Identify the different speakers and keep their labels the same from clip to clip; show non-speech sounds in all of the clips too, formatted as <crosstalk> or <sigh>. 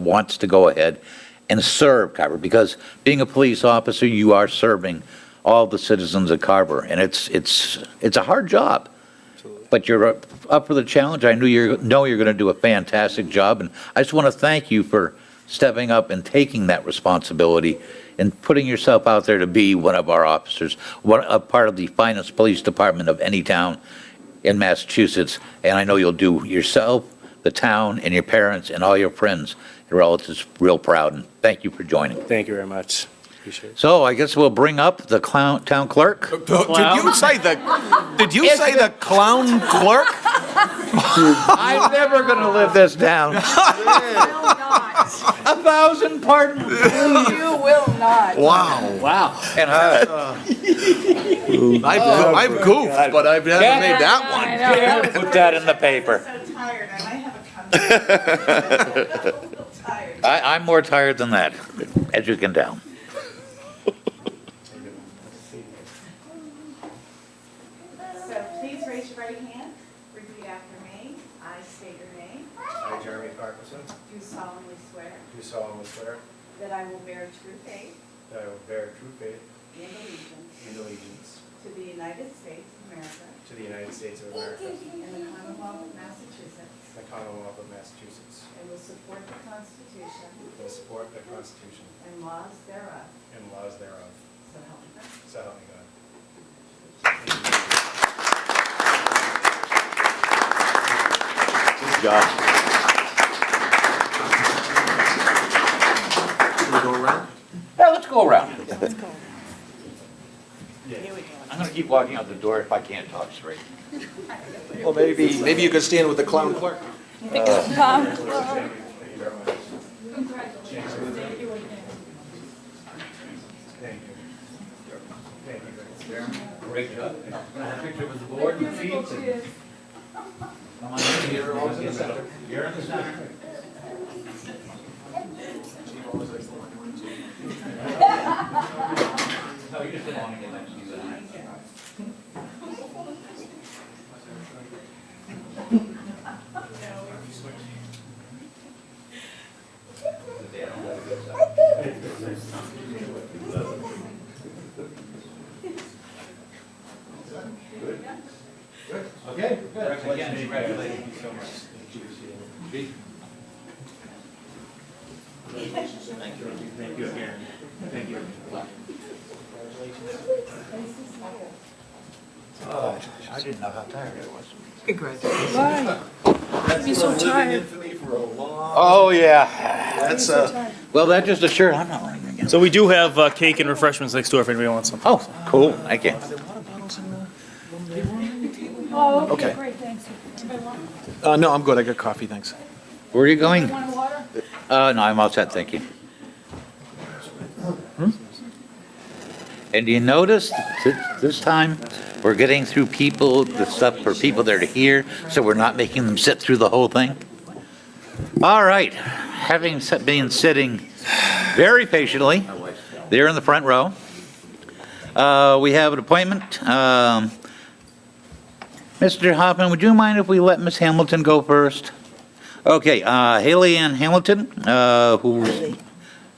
Speaker 1: wants to go ahead and serve Carver, because being a police officer, you are serving all the citizens of Carver, and it's, it's, it's a hard job. But you're up- up for the challenge. I knew you're, know you're going to do a fantastic job, and I just want to thank you for stepping up and taking that responsibility and putting yourself out there to be one of our officers, one, a part of the finest police department of any town in Massachusetts, and I know you'll do yourself, the town, and your parents, and all your friends and relatives real proud, and thank you for joining.
Speaker 2: Thank you very much. Appreciate it.
Speaker 1: So I guess we'll bring up the clown, town clerk.
Speaker 3: Uh, Did you say the? Did you say the clown clerk?
Speaker 1: <laughs> I'm never going to live this down. A thousand pardons.
Speaker 4: You will not.
Speaker 3: Wow.
Speaker 2: Wow.
Speaker 1: And uh,
Speaker 3: I've, I've goofed, but I've never made that
Speaker 4: I know.
Speaker 1: put that in the paper.
Speaker 5: I'm so tired, I might have a comeback. I'm so tired.
Speaker 1: I, I'm more tired than that, as you can tell.
Speaker 5: So please raise your right hand, repeat after me. I state your name.
Speaker 6: I, Jeremy Parkinson,
Speaker 5: Do solemnly swear
Speaker 6: do solemnly swear
Speaker 5: that I will bear true faith
Speaker 6: that I will bear true faith
Speaker 5: and allegiance
Speaker 6: and allegiance
Speaker 5: to the United States of America
Speaker 6: to the United States of America
Speaker 5: and the Commonwealth of Massachusetts,
Speaker 6: and the Commonwealth of Massachusetts,
Speaker 5: and will support the Constitution
Speaker 6: and support the Constitution
Speaker 5: and laws thereof,
Speaker 6: and laws thereof,
Speaker 5: so help me God.
Speaker 6: so help me God.
Speaker 1: Yeah, let's go around. I'm going to keep walking out the door if I can't talk straight.
Speaker 7: Well, maybe, maybe you could stand with the clown clerk.
Speaker 6: Thank you. Thank you.
Speaker 1: Great job. Can I have a picture with the board and the feet? Come on, you're always in the center. You're in the center. No, you just don't want to get next to you. Again, congratulations.
Speaker 7: Oh,
Speaker 1: I didn't know how tired I was.
Speaker 4: Why? You'd be so tired.
Speaker 7: Oh, yeah. That's, uh,
Speaker 1: Well, that just assured I'm not running again.
Speaker 2: So we do have uh, cake and refreshments next door if anybody wants some.
Speaker 1: Oh, cool. Thank you.
Speaker 4: Oh,
Speaker 7: Okay.
Speaker 4: okay, great, thanks. Anybody want-
Speaker 7: uh, no, I'm good. I got coffee, thanks.
Speaker 1: Where are you going?
Speaker 4: Want water?
Speaker 1: Uh, no, I'm all set, thank you. Hmm? And you notice th- this time, we're getting through people, the stuff for people that are here, so we're not making them sit through the whole thing? All right, having sit- been sitting very patiently, there in the front row, uh, we have an appointment. Um, Mr. Hoffman, would you mind if we let Ms. Hamilton go first? Okay, uh, Haley Ann Hamilton, uh, who,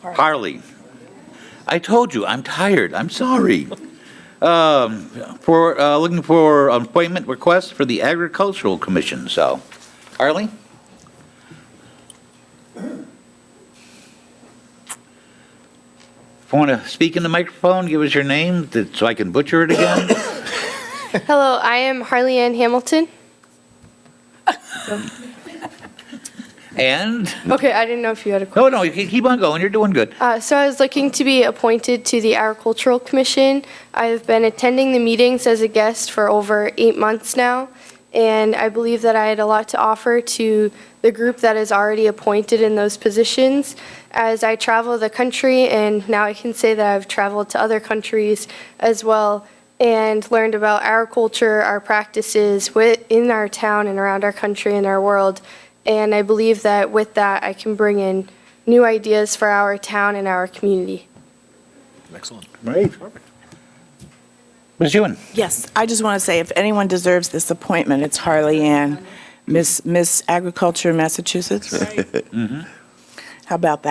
Speaker 1: Harley. I told you, I'm tired, I'm sorry. Um, For, uh, looking for an appointment request for the Agricultural Commission, so. Harley? If you want to speak in the microphone, give us your name, that- so I can butcher it again.
Speaker 8: Hello, I am Harley Ann Hamilton.
Speaker 1: And,
Speaker 8: Okay, I didn't know if you had a question.
Speaker 1: no, no, you can keep on going, you're doing good.
Speaker 8: Uh, so I was looking to be appointed to the Agricultural Commission. I've been attending the meetings as a guest for over eight months now, and I believe that I had a lot to offer to the group that is already appointed in those positions. As I travel the country, and now I can say that I've traveled to other countries as well, and learned about our culture, our practices within our town and around our country and our world. And I believe that with that, I can bring in new ideas for our town and our community.
Speaker 7: Excellent.
Speaker 1: Right. Ms. Ewan?
Speaker 9: Yes, I just want to say, if anyone deserves this appointment, it's Harley Ann, Miss Miss Agriculture Massachusetts.
Speaker 5: How about that?